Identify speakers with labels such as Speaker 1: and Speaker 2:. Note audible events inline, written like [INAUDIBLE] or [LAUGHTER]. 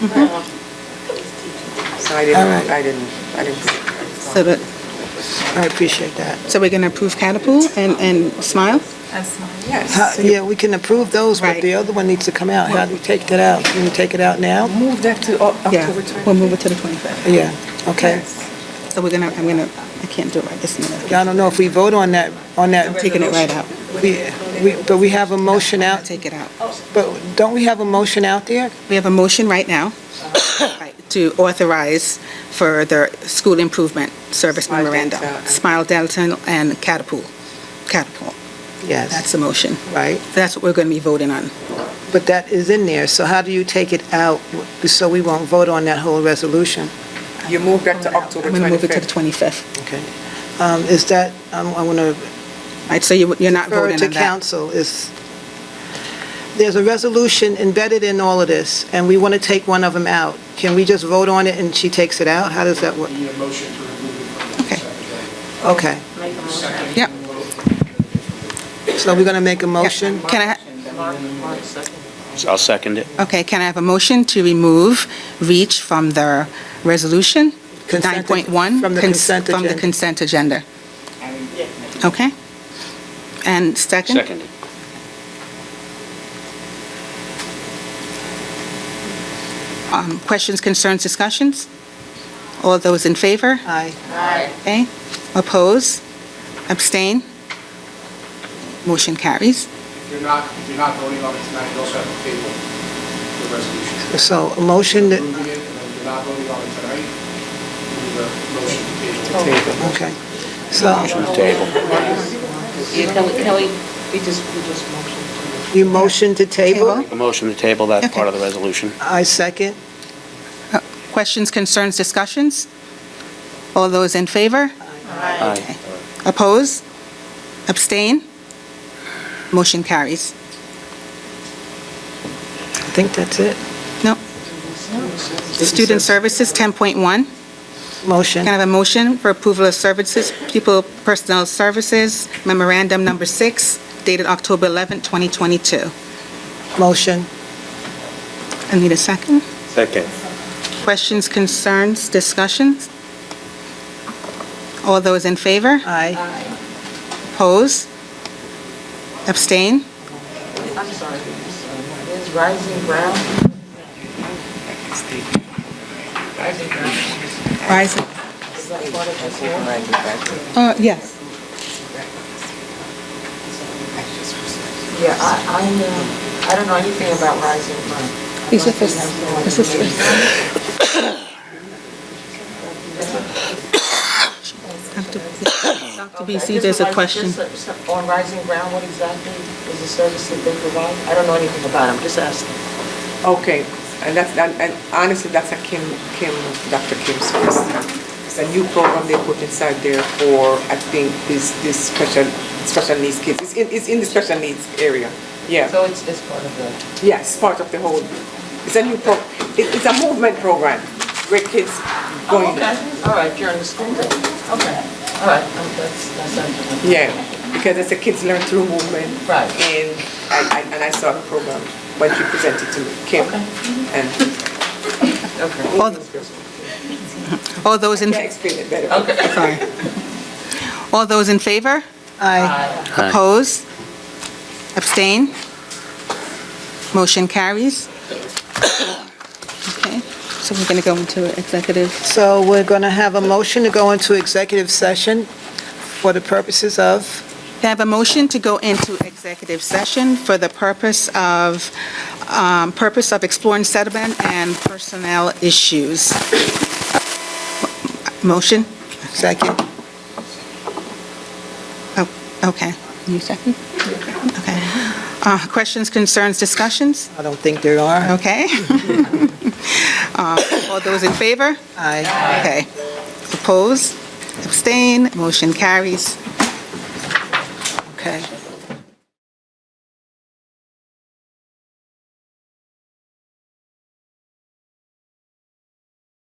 Speaker 1: Mm-hmm. So I didn't,
Speaker 2: Alright.
Speaker 1: I didn't, I didn't.
Speaker 2: So that,
Speaker 3: I appreciate that.
Speaker 2: so we're going to approve Catapult and, and Smile?
Speaker 3: How-
Speaker 1: Yes.
Speaker 3: Yeah, we can approve those, but
Speaker 2: Right.
Speaker 3: the other one needs to come out. How do we take that out? Can we take it out now?
Speaker 1: Move that to Oc-
Speaker 2: Yeah,
Speaker 1: October
Speaker 2: we'll
Speaker 1: 20th.
Speaker 2: move it to the 25th.
Speaker 3: Yeah, okay.
Speaker 2: So we're going to, I'm going to, I can't do it right this minute.
Speaker 3: I don't know if we vote on that, on
Speaker 2: I'm
Speaker 3: that,
Speaker 2: taking it right out.
Speaker 3: we, we- but we have a motion
Speaker 2: I'll
Speaker 3: out,
Speaker 2: take it out.
Speaker 3: but don't we have a motion out there?
Speaker 2: We have a motion right now [COUGHS] right, to authorize for the school improvement service
Speaker 1: Smile
Speaker 2: memorandum.
Speaker 1: Dental.
Speaker 2: Smile Dental and Catapult. Catapult, that's
Speaker 3: Yes,
Speaker 2: the motion.
Speaker 3: right?
Speaker 2: That's what we're going to be voting on.
Speaker 3: But that is in there, so how do you take it out so we won't vote on that whole resolution?
Speaker 1: You move that to
Speaker 2: I'm
Speaker 1: October
Speaker 2: going to move it to the
Speaker 1: 25th.
Speaker 2: 25th.
Speaker 3: Okay. Um, Is that, um, I want to
Speaker 2: All right, so you- you're not
Speaker 3: refer
Speaker 2: voting
Speaker 3: to
Speaker 2: on that?
Speaker 3: council is, there's a resolution embedded in all of this, and we want to take one of them out. Can we just vote on it and she takes it out? How does that work?
Speaker 4: We need a motion to remove it from the
Speaker 2: Okay.
Speaker 4: consent
Speaker 3: Okay,
Speaker 4: agenda.
Speaker 2: Yep.
Speaker 3: so we're going to make a motion?
Speaker 2: Can I,
Speaker 5: I'll second it.
Speaker 2: Okay, can I have a motion to remove reach from the resolution?
Speaker 3: Consent-
Speaker 2: 9.1?
Speaker 3: from the
Speaker 2: Cons-
Speaker 3: consent
Speaker 2: From the
Speaker 3: agenda.
Speaker 2: consent agenda. Okay? And second?
Speaker 5: Second it.
Speaker 2: Um, Questions, concerns, discussions? All those in favor?
Speaker 3: Aye.
Speaker 2: Okay? Oppose? Abstain? Motion carries.
Speaker 4: If you're not, if you're not voting on it tonight, you also have to table the resolution.
Speaker 3: So a motion that,
Speaker 4: Approving it, and then if you're not voting on it tonight, you need a motion to table.
Speaker 3: okay. So
Speaker 5: Motion to table.
Speaker 6: Can we, can we, we just, we just motion
Speaker 3: you motion to table?
Speaker 2: Table.
Speaker 5: A motion to table that part of the resolution.
Speaker 3: I second.
Speaker 2: Questions, concerns, discussions? All those in favor?
Speaker 5: Aye.
Speaker 2: Oppose? Abstain? Motion carries.
Speaker 3: I think that's it.
Speaker 2: No. Student Services, 10.1. Can
Speaker 3: Motion.
Speaker 2: I have a motion for approval of services, pupil personnel services, memorandum number six, dated October 11, 2022.
Speaker 3: Motion.
Speaker 2: I need a second.
Speaker 5: Second.
Speaker 2: Questions, concerns, discussions? All those in favor?
Speaker 3: Aye.
Speaker 2: Oppose? Abstain?
Speaker 6: to, I'm sorry, is Rising Ground? Rising Ground,
Speaker 2: Rise.
Speaker 6: is that part of this here?
Speaker 2: Uh, yes.
Speaker 6: Yeah, I, I know, I don't know anything about Rising Ground. I
Speaker 2: Is it
Speaker 6: honestly
Speaker 2: this-
Speaker 6: have no idea.
Speaker 2: is this- [COUGHS] Dr.
Speaker 6: Okay,
Speaker 2: BC,
Speaker 6: just
Speaker 2: there's a
Speaker 6: like-
Speaker 2: question.
Speaker 6: just, uh, On Rising Ground, what exactly is the service that they provide? I don't know anything about them, just asking.
Speaker 1: Okay, and that's, and and honestly, that's a Kim, Kim, Dr. Kim's first. It's a new program they put inside there for, I think, this, this special, special needs kids. It's in, it's in the special needs area, yeah.
Speaker 6: So it's, it's part of the,
Speaker 1: Yes, part of the whole, it's a new pro, it- it's a movement program where kids
Speaker 6: oh,
Speaker 1: going,
Speaker 6: okay, all right, you're in the school, then. okay, all right, um, that's, that's. something.
Speaker 1: yeah, because it's a kids learn through movement.
Speaker 6: Right.
Speaker 1: And I, I- and I saw the program when she presented to me, Kim.
Speaker 6: Okay.
Speaker 1: And
Speaker 6: Okay.
Speaker 2: All- All those in,
Speaker 1: I explained it better.
Speaker 2: sorry. All those in favor?
Speaker 3: Aye.
Speaker 2: Oppose? Abstain? Motion carries. [COUGHS] Okay, so we're going to go into executive.
Speaker 3: So we're going to have a motion to go into executive session for the purposes of?
Speaker 2: Can I have a motion to go into executive session for the purpose of, um, purpose of exploring settlement and personnel issues? Motion?
Speaker 3: Second.
Speaker 2: Oh, Okay. You second? Okay. Uh, Questions, concerns, discussions?
Speaker 3: I don't think there are.
Speaker 2: Okay. [LAUGHS] Uh, All those in favor?
Speaker 3: Aye.
Speaker 2: Okay. Oppose? Abstain? Motion carries.
Speaker 3: Okay.